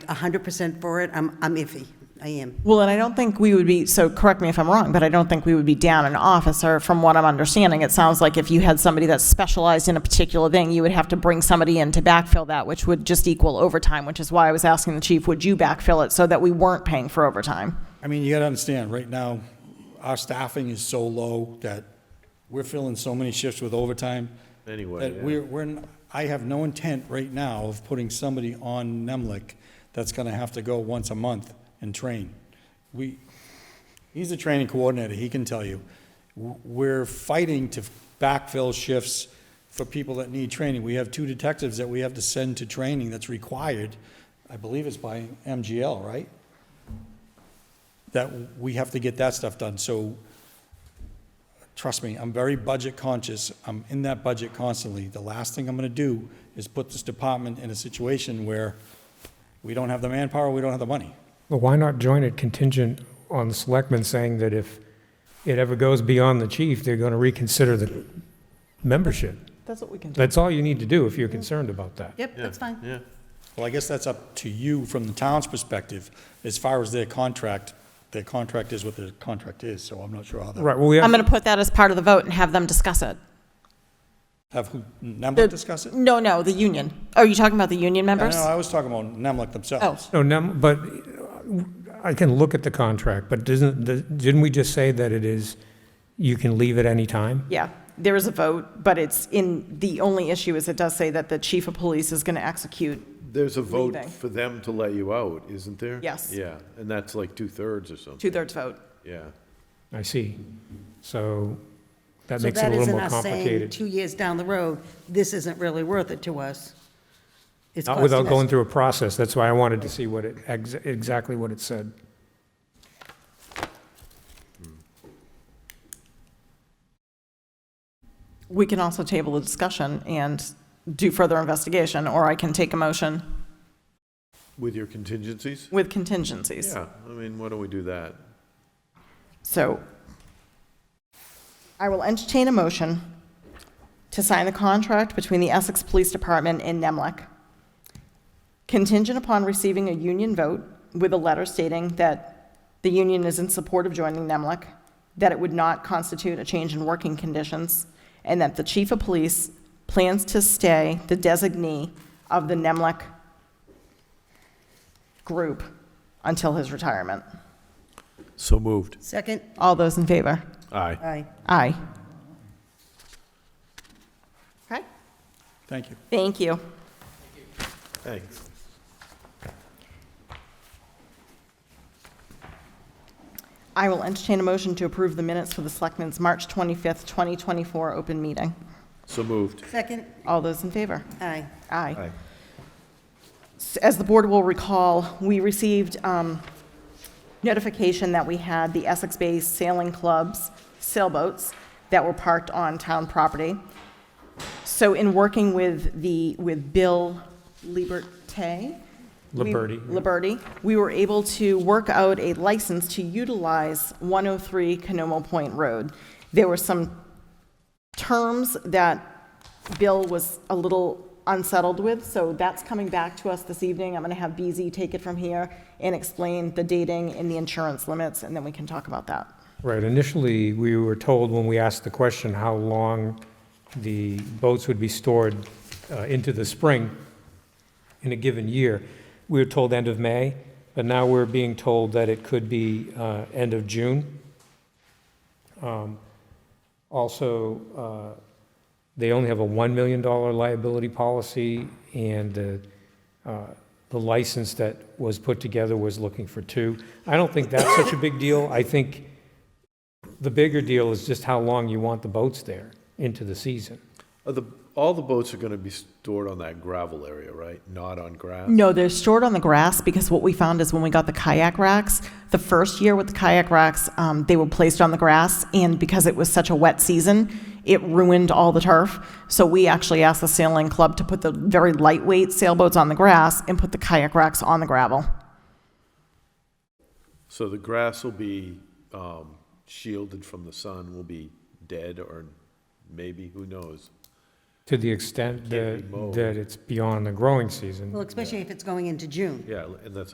100% for it, I'm, I'm iffy. I am. Well, and I don't think we would be, so correct me if I'm wrong, but I don't think we would be down an officer. From what I'm understanding, it sounds like if you had somebody that specialized in a particular thing, you would have to bring somebody in to backfill that, which would just equal overtime, which is why I was asking the chief, would you backfill it so that we weren't paying for overtime? I mean, you gotta understand, right now, our staffing is so low that we're filling so many shifts with overtime. Anyway, That yeah. we're, we're, n- I have no intent right now of putting somebody on Nemlik that's gonna have to go once a month and train. We, he's a training coordinator, he can tell you. W- We're fighting to backfill shifts for people that need training. We have two detectives that we have to send to training that's required, I believe it's by MGL, right? that we have to get that stuff done. So, trust me, I'm very budget conscious. I'm in that budget constantly. The last thing I'm gonna do is put this department in a situation where we don't have the manpower, we don't have the money. Well, why not join it contingent on the selectmen saying that if it ever goes beyond the chief, they're going to reconsider the membership? That's what we can do. That's all you need to do if you're concerned about that. Yep, that's fine. Yeah, Well, I guess that's up to you from the town's perspective, as far as their contract, their contract is what their contract is, so I'm not sure how that, Right, well, we I'm have, going to put that as part of the vote and have them discuss it. have who, Nemlik discuss it? No, no, the union. Are you talking about the union No, members? no, I was talking about Nemlik themselves. no, nem- but uh, I can look at the contract, but doesn't, the- didn't we just say that it is, you can leave at any time? Yeah, there is a vote, but it's in, the only issue is it does say that the chief of police is going to execute. there's a vote Leaving. for them to let you out, isn't there? Yes. Yeah, and that's like two-thirds or something. Two-thirds vote. Yeah. I see. So that So makes it a that little isn't more us saying, complicated. two years down the road, this isn't really worth it to us. It's Not without costing us- going through a process. That's why I wanted to see what it, ex- exactly what it said. We can also table the discussion and do further investigation, or I can take a motion With your contingencies? with contingencies. Yeah, I mean, why don't we do that? So I will entertain a motion to sign the contract between the Essex Police Department and Nemlec, contingent upon receiving a union vote with a letter stating that the union is in support of joining Nemlec, that it would not constitute a change in working conditions, and that the chief of police plans to stay the designee of the Nemlec group until his retirement. So moved. Second, All those in favor? Aye. aye. Aye. Okay, Thank you. thank you. Thanks. I will entertain a motion to approve the minutes for the Selectmen's March 25th, 2024 open meeting. So moved. Second, All those in favor? aye. Aye. S- As the board will recall, we received um, notification that we had the Essex Bay Sailing Club's sailboats that were parked on town property. So in working with the, with Bill Liberté. we- Liberty. Liberty, we were able to work out a license to utilize 103 Canomo Point Road. There were some terms that Bill was a little unsettled with, so that's coming back to us this evening. I'm going to have BZ take it from here and explain the dating and the insurance limits, and then we can talk about that. Right, initially, we were told when we asked the question how long the boats would be stored uh, into the spring in a given year, we were told end of May, but now we're being told that it could be uh, end of June. Um, Also, uh, they only have a $1 million liability policy, and the uh, the license that was put together was looking for two. I don't think that's such a big deal. I think the bigger deal is just how long you want the boats there into the season. Are the, all the boats are gonna be stored on that gravel area, right? Not on grass? No, they're stored on the grass because what we found is when we got the kayak racks, the first year with the kayak racks, um, they were placed on the grass, and because it was such a wet season, it ruined all the turf. So we actually asked the sailing club to put the very lightweight sailboats on the grass and put the kayak racks on the gravel. So the grass will be um, shielded from the sun, will be dead or maybe, who knows? to the extent Can't be that, mowed. that it's beyond the growing season. Well, especially if it's going into June. Yeah, and that's